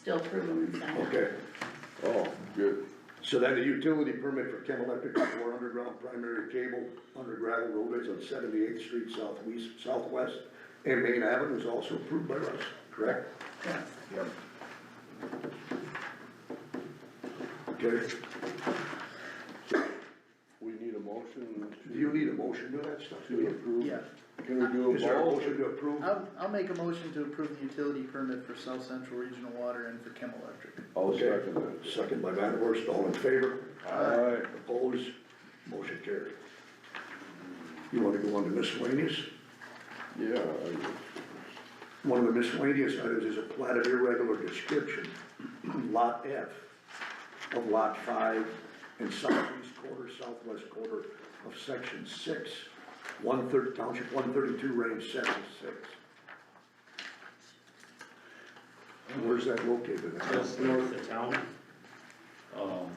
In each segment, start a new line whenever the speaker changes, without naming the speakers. still approve them and sign them.
Okay, oh,
Good.
so then the utility permit for Chem Electric for underground primary cable under gravel roadways on Seventy-Eighth Street southwest, southwest and Main Avenue is also approved by us, correct?
Correct.
Yep. Okay,
We need a motion to.
do you need a motion to that stuff?
To approve.
Yeah.
Can we do
Is there a
a both?
motion to approve?
I'll, I'll make a motion to approve the utility permit for South Central Regional Water and for Chem Electric.
I'll
Okay.
second that.
Second by Van Horst, all in favor?
Alright,
Opposed, motion carried. You wanna go on to miscellaneous?
yeah, I-
One of the miscellaneous items is a plat of irregular description, lot F of lot five and southeast quarter, southwest quarter of section six, one thirty, township one thirty-two, range seven six. And Where's that located? at?
Just north of town, um,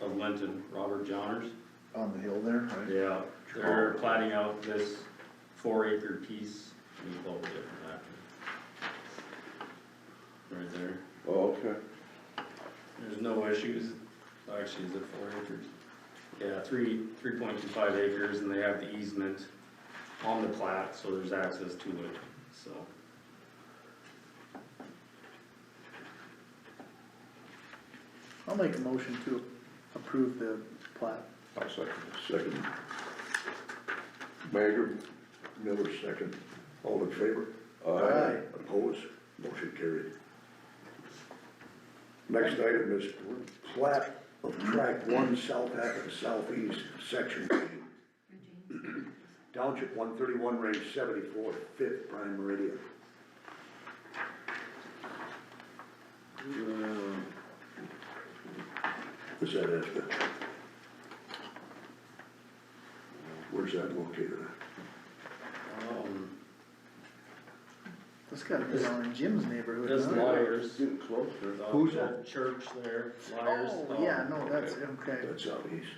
of Linton, Robert Johners.
On the hill there, right?
Yeah. They're plating out this four acre piece, and it's all different after. Right there,
oh, okay,
there's no issues, actually, is it four acres? Yeah, three, three point two five acres, and they have the easement on the plat, so there's access to it, so.
I'll make a motion to approve the plat.
I'll second
Second,
it. Mayor,
Miller second, all in favor?
aye.
Opposed, motion carried. Next item is plat of track one south half of southeast, section B, township one thirty-one, range seventy-four, fifth prime meridian. Uh, Is that it? Where's that located at?
Um,
That's gotta be down in Jim's neighborhood,
That's
huh?
Liars.
Getting closer.
uh,
Who's that?
Church there, Liars.
Oh,
um,
yeah, no, that's, okay,
That's out east.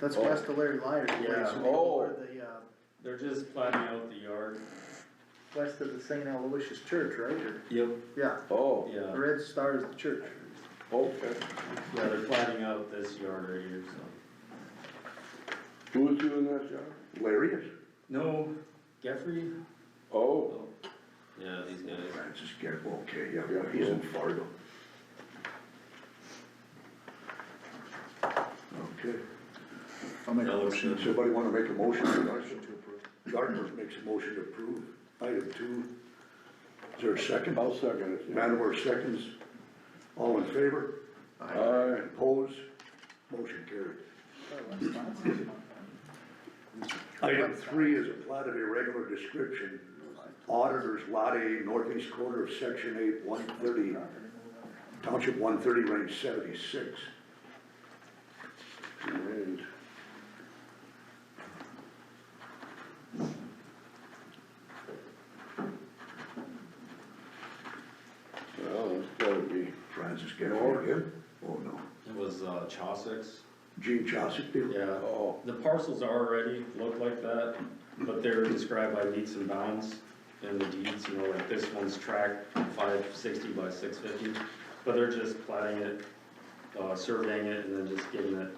that's
Oh.
west of Larry Lyer's place,
Yeah.
you know,
Oh.
where the, uh,
They're just plating out the yard.
west of the Saint Aloysius Church, right, or,
Yep.
yeah,
Oh,
the
Yeah,
Red Star is the church.
okay.
yeah, they're plating out this yard right here, so.
Who was doing that job?
Larry is?
No, Geoffrey?
Oh,
Yeah, these guys.
Francis Gebb, okay, yeah, yeah, he's in Fargo. Okay,
I'll make a
does somebody wanna make a motion? Gardner makes a motion to approve item two. Is there a second?
I'll second it. yeah.
Mattawar seconds. All in favor?
Aye,
Opposed? Motion carried. Item three is a plat of irregular description. Auditors Lot A, northeast corner of Section eight, one thirty, Township one thirty, range seventy-six.
and Well, it's gotta be,
Francis Gavin again? Oh, no.
It was, uh, Chaucer's.
Gene Chaucer did it?
Yeah,
oh,
the parcels already look like that, but they're described by meets and bounds in the deeds, you know, like this one's track five sixty by six fifty. But they're just plating it, uh, surveying it and then just giving it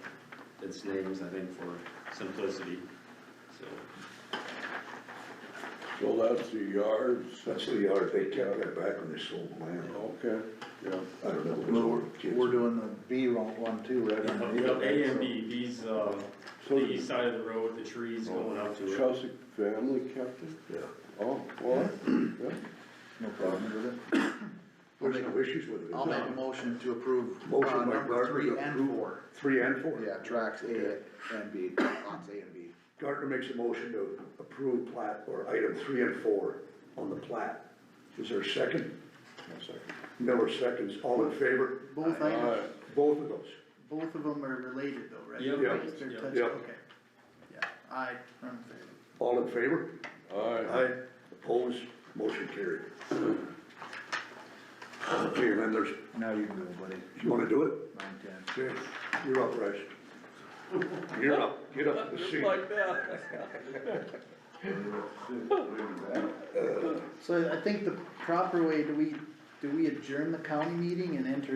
its names, I think, for simplicity, so.
so that's the yards,
That's the yard, they kept that back when they sold the land.
okay, yeah.
I don't know, it was over
We're
kids.
doing the B one too, right?
Up- up A and B, these, uh,
So
the east side of the road, the trees going up
the
to it.
Chelsea family kept it?
Yeah.
Oh, what? Yeah.
No problem with it.
There's no issues with it.
I'll make a motion to approve, uh,
Motion by
number
Gardner
three
to
and
approve.
four.
Three and four?
Yeah, tracks A and B, lots A and B.
Gardner makes a motion to approve plat, or item three and four on the plat. Is there a second? Miller seconds, all in favor?
Both items,
Alright,
Both of those.
both of them are related though, right?
Yep.
Yeah.
They're
Yep.
touched,
Yep.
okay. Yeah, I, I'm in favor.
All in favor?
alright,
Aye. Opposed, motion carried. Okay, and then there's,
Now you can go, buddy,
you wanna do it?
nine ten.
Okay, you're up, Bryce. You're up, get up to the seat.
So I think the proper way, do we do we adjourn the county meeting and enter